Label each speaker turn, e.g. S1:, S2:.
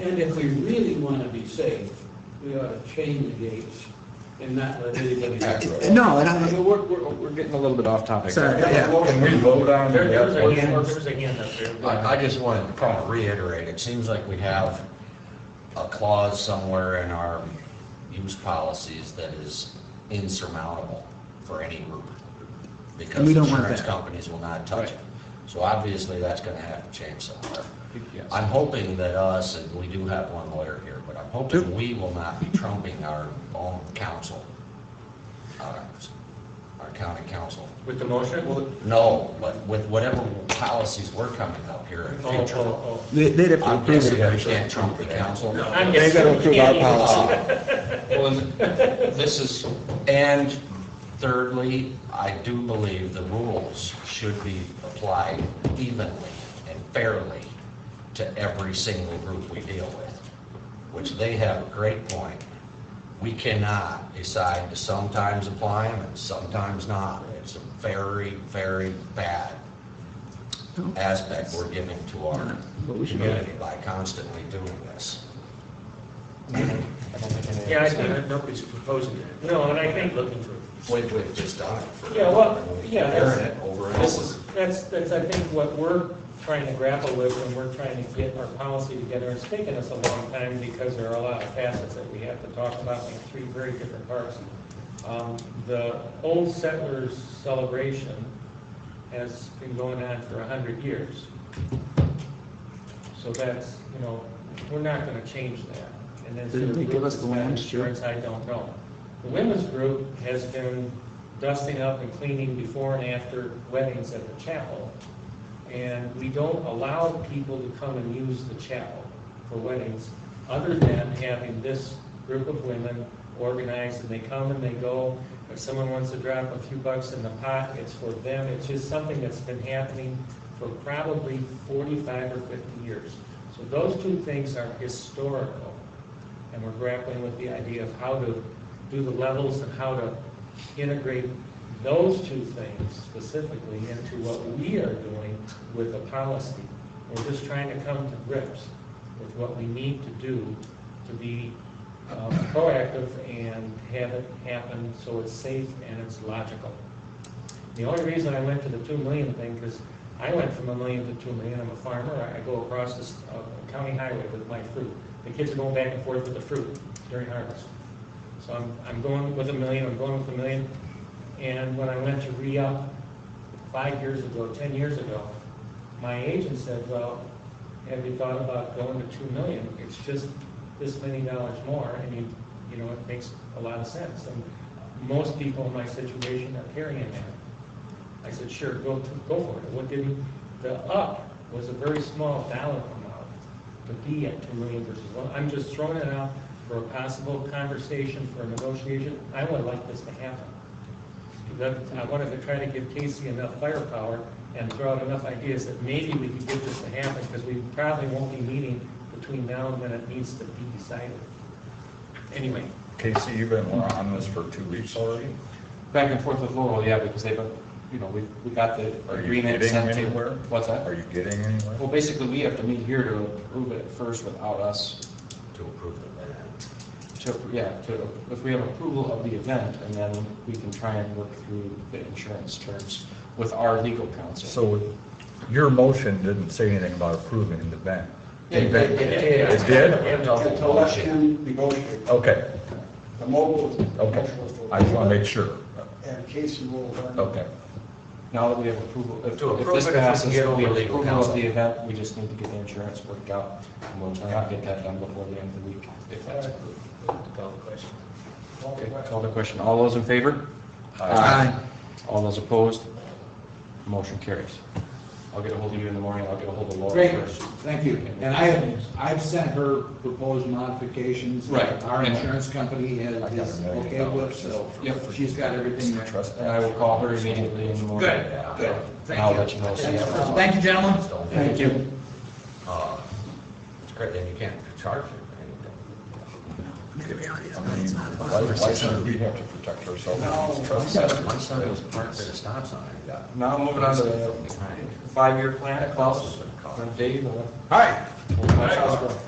S1: And if we really want to be safe, we ought to chain the gates and not let anybody.
S2: That's right.
S3: No, and
S4: I
S3: I,
S4: mean, We're, we're, we're getting a little bit off topic.
S3: Sorry. Yeah.
S2: Can we vote on
S5: There, there was a
S2: that?
S5: hand, there was a hand up there.
S6: I, I just wanted to kind of reiterate, it seems like we have a clause somewhere in our use policies that is insurmountable for any group. Because
S3: We don't want
S6: insurance
S3: that.
S6: companies will not touch it.
S4: Right.
S6: So obviously, that's going to have to change somewhere.
S4: Yes.
S6: I'm hoping that us, and we do have one lawyer here, but I'm
S3: Sure.
S6: hoping we will not be trumping our own counsel, our our county council.
S5: With the motion?
S6: No, but with whatever policies we're coming up here in
S5: Oh,
S6: future,
S5: oh,
S3: they- they'd have to
S6: I'm
S3: approve
S6: guessing
S3: it.
S6: we can't trump the council. Uh,
S5: oh. I'm
S4: They gotta approve our policy.
S6: Well, and This is, and thirdly, I do believe the rules should be applied evenly and fairly to every single group we deal with, which they have a great point. We cannot decide to sometimes apply them and sometimes not. It's a very, very bad aspect we're giving to our
S3: But we should-
S6: community by constantly doing this.
S5: Yeah, I think, nobody's proposing that. No, and I think,
S1: Looking for.
S6: We've, we've just done it for.
S5: Yeah, well, yeah, that's-
S6: Hearing it over and
S5: this
S6: over.
S5: is, that's, that's, I think, what we're trying to grapple with when we're trying to get our policy together. It's taken us a long time because there are a lot of facets that we have to talk about in three very different parts. Um, The Old Settlers Celebration has been going on for a hundred years. So that's, you know, we're not gonna change that. And then
S3: Didn't
S5: the
S3: they give
S5: group
S3: us the
S5: that's got
S3: lands, too?
S5: insurance, I don't know. The women's group has been dusting up and cleaning before and after weddings at the chapel. And we don't allow people to come and use the chapel for weddings, other than having this group of women organized, and they come and they go. If someone wants to drop a few bucks in the pot, it's for them. It's just something that's been happening for probably forty-five or fifty years. So those two things are historical, and we're grappling with the idea of how to do the levels and how to integrate those two things specifically into what we are doing with the policy. We're just trying to come to grips with what we need to do to be um, proactive and have it happen so it's safe and it's logical. The only reason I went to the two million thing, because I went from a million to two million, I'm a farmer, I- I go across this uh, county highway with my fruit. The kids are going back and forth with the fruit during harvest. So I'm, I'm going with a million, I'm going with a million. And when I went to re-up five years ago, 10 years ago, my agent said, well, have you thought about going to 2 million? It's just this many dollars more, and you, you know, it makes a lot of sense. And most people in my situation are carrying that. I said, sure, go, to- go for it. What didn't, the up was a very small dollar amount to be at 2 million versus 1. I'm just throwing it out for a possible conversation, for a negotiation. I would like this to happen. That- I wanted to try to give Casey enough firepower and throw out enough ideas that maybe we could get this to happen, because we probably won't be meeting between now and when it needs to be decided. Anyway,
S2: Casey, you've been on this for two weeks already?
S4: Back and forth with Laurel, yeah, because they've, uh, you know, we, we got the
S2: Are you
S4: agreement
S2: getting
S4: sent to.
S2: anywhere?
S4: What's that?
S2: Are you getting anywhere?
S4: Well, basically, we have to meet here to approve it first without us,
S6: to approve the minutes.
S4: to, yeah, to, if we have approval of the event, and then we can try and work through the insurance terms with our legal counsel.
S2: So your motion didn't say anything about approving the ban. It
S6: We
S2: did?
S6: have double motion.
S7: Election negotiator,
S2: Okay,
S7: the mobile.
S2: okay. I just want to make sure.
S7: And Casey will learn.
S2: Okay.
S4: Now that we have approval, if,
S6: To
S4: if
S6: approve it,
S4: this
S6: if we
S4: passes, we
S6: get
S4: have
S6: over legal
S4: approval
S6: counsel.
S4: of the event, we just need to get the insurance worked out, and we'll try and get that done before the end of the week, if that's approved. Okay, call the question. All those in favor?
S3: Aye.
S4: All those opposed? Motion carries. I'll get a hold of you in the morning, I'll get a hold of Laura
S8: Great,
S4: first.
S8: thank you. And I have, I've sent her proposed modifications.
S4: Right.
S8: Our insurance company has, is okay with, so
S4: Yep.
S8: she's got everything there.
S2: Trust
S4: And I will call her immediately in the morning.
S8: Good, good,
S4: And
S8: thank
S4: I'll let you
S8: you.
S4: know.
S8: Thank you, gentlemen.
S6: Don't-
S8: Thank you.
S6: Uh, It's great, then you can't charge it.
S2: Why why should we have to protect ourselves?
S7: Now,
S2: Trust.
S6: My son was parked at a stop sign, I got.
S4: Now, moving on to the five-year plan, Klaus, and Dave. and-
S2: Hi.
S4: Klaus, go.